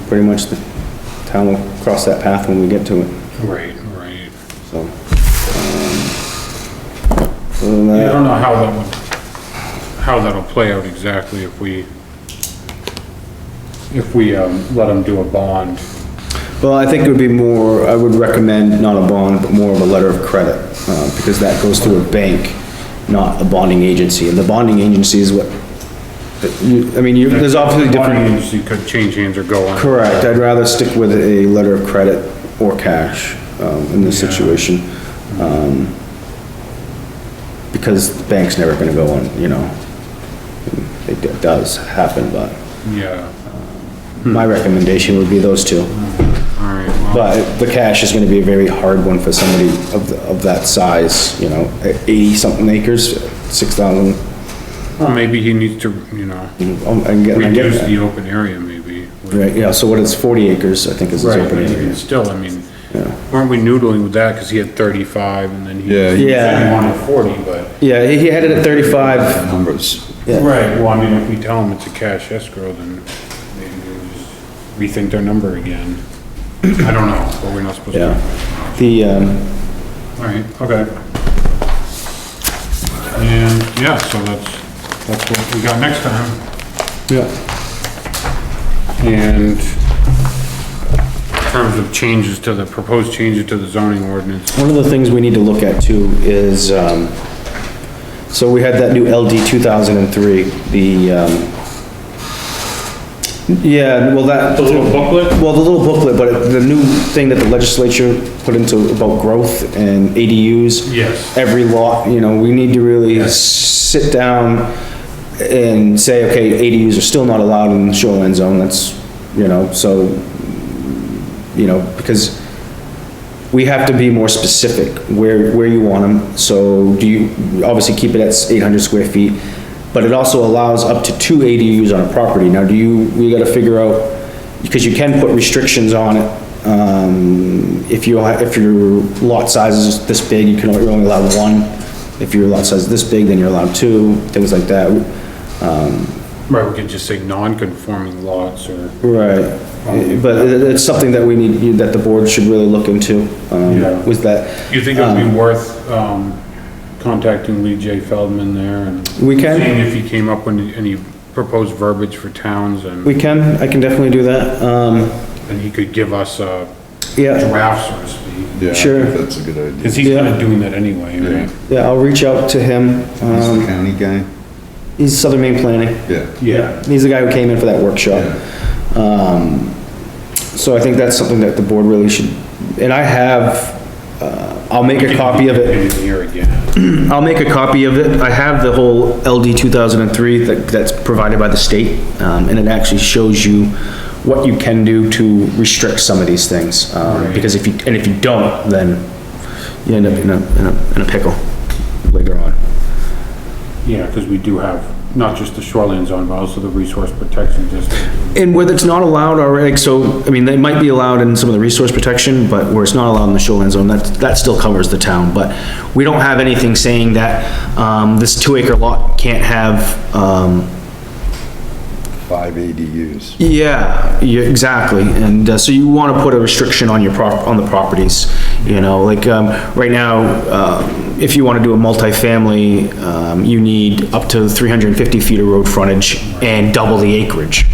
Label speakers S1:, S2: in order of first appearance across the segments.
S1: pretty much the town will cross that path when we get to it,
S2: Right, right.
S1: so. um, Other than
S2: I
S1: that,
S2: don't know how that would, how that'll play out exactly if we, if we, um, let them do a bond.
S1: well, I think it would be more, I would recommend not a bond, but more of a letter of credit, uh, because that goes through a bank, not a bonding agency, and the bonding agency is what, you, I mean, you, there's obviously different.
S2: Bonding agency could change hands or go on.
S1: Correct, I'd rather stick with a letter of credit or cash, um, in this situation. um, Because the bank's never gonna go on, you know. It d- does happen, but
S2: Yeah, Hmm.
S1: my recommendation would be those two.
S2: all right, well,
S1: But the cash is gonna be a very hard one for somebody of, th- of that size, you know, eighty-something acres, six thousand, oh,
S2: well, maybe he needs to, you know,
S1: I can get, I get
S2: reduce
S1: that.
S2: the open area maybe.
S1: Right, yeah, so what is forty acres, I think is his
S2: Right, but
S1: opening
S2: even
S1: area.
S2: still, I mean,
S1: Yeah.
S2: weren't we noodling with that, cause he had thirty-five and then he.
S3: Yeah, he-
S1: Yeah.
S2: He wanted forty, but.
S1: Yeah, he he had it at thirty-five,
S3: numbers.
S1: Yeah.
S2: Right, well, I mean, if we tell them it's a cash escrow, then maybe we just rethink their number again. I don't know, but we're not supposed
S1: Yeah,
S2: to.
S1: the, um,
S2: Alright, okay. And, yeah, so that's, that's what we got next time.
S1: yeah,
S2: And in terms of changes to the, proposed changes to the zoning ordinance,
S1: one of the things we need to look at too is, um, so we had that new LD two thousand and three, the, um, yeah, well, that.
S2: The little booklet?
S1: Well, the little booklet, but the new thing that the legislature put into about growth and ADUs.
S2: Yes.
S1: Every law, you know, we need to really sit down and say, okay, ADUs are still not allowed in the shoreline zone, that's, you know, so, you know, because we have to be more specific where, where you want them. So do you, obviously keep it at eight hundred square feet, but it also allows up to two ADUs on a property. Now, do you, we gotta figure out, because you can put restrictions on it. Um, if you, if your lot size is this big, you can only you're only allow one. If your lot size is this big, then you're allowed two, things like that.
S2: right, we could just say non-conforming lots or.
S1: Right,
S2: Um,
S1: but it, it's something that we need, that the board should really look into,
S2: Yeah.
S1: um, was that.
S2: You think it would be worth, um, contacting Lee J. Feldman there and?
S1: We can.
S2: Seeing if he came up with any proposed verbiage for towns and,
S1: We can, I can definitely do that, um,
S2: and he could give us, uh,
S1: yeah,
S2: drafts, so to speak.
S3: Yeah, I think
S1: Sure.
S3: That's a good idea.
S2: Cause he's
S1: Yeah.
S2: kinda doing that anyway, right?
S1: yeah, I'll reach out to him.
S3: He's the
S1: Um,
S3: county guy?
S1: he's Southern Maine Planning,
S3: Yeah.
S2: Yeah.
S1: he's the guy who came in for that workshop.
S3: Yeah.
S1: So I think that's something that the board really should, and I have, uh, I'll make a copy of it.
S2: In here again.
S1: I'll make a copy of it. I have the whole LD 2003 that, that's provided by the state, um, and it actually shows you what you can do to restrict some of these things. Um, because if you, and if you don't, then you end up in a, in a, in a pickle later on.
S2: Yeah, cause we do have not just the shoreline zone, but also the resource protection district.
S1: And whether it's not allowed already, so, I mean, they might be allowed in some of the resource protection, but where it's not allowed in the shoreline zone, that, that still covers the town, but we don't have anything saying that, um, this two acre lot can't have, um,
S3: Five ADUs.
S1: Yeah, yeah, exactly, and, uh, so you wanna put a restriction on your prop, on the properties, you know, like, um, right now, uh, if you wanna do a multifamily, um, you need up to three hundred and fifty feet of road frontage and double the acreage.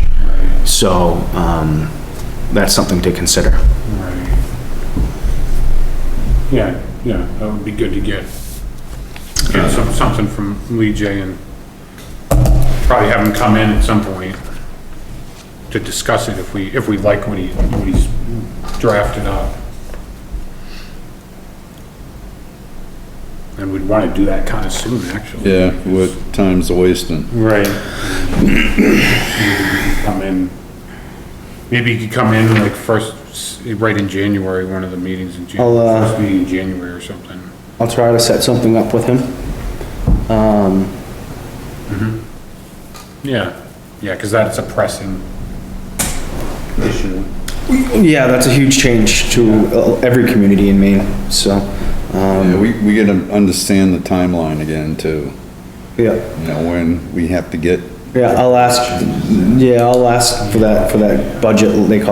S1: So, um, that's something to consider.
S2: Right. Yeah, yeah, that would be good to get, get some, something from Lee J and probably have him come in at some point to discuss it if we, if we like what he, what he's drafted up. And we'd want to do that kind of soon, actually.
S3: Yeah, what time's wasting?
S2: Right. Maybe he could Come in, maybe you could come in like first, right in January, one of the meetings in
S1: I'll,
S2: January,
S1: uh,
S2: first meeting in January or something.
S1: I'll try to set something up with him.
S2: Yeah, yeah, because that's a pressing issue.
S1: Yeah, that's a huge change to uh, every community in Maine, so, um,
S3: Yeah, we, we gotta understand the timeline again too.
S1: yeah,
S3: You know, when we have to get
S1: yeah, I'll ask, yeah, I'll ask for that, for that budget, they call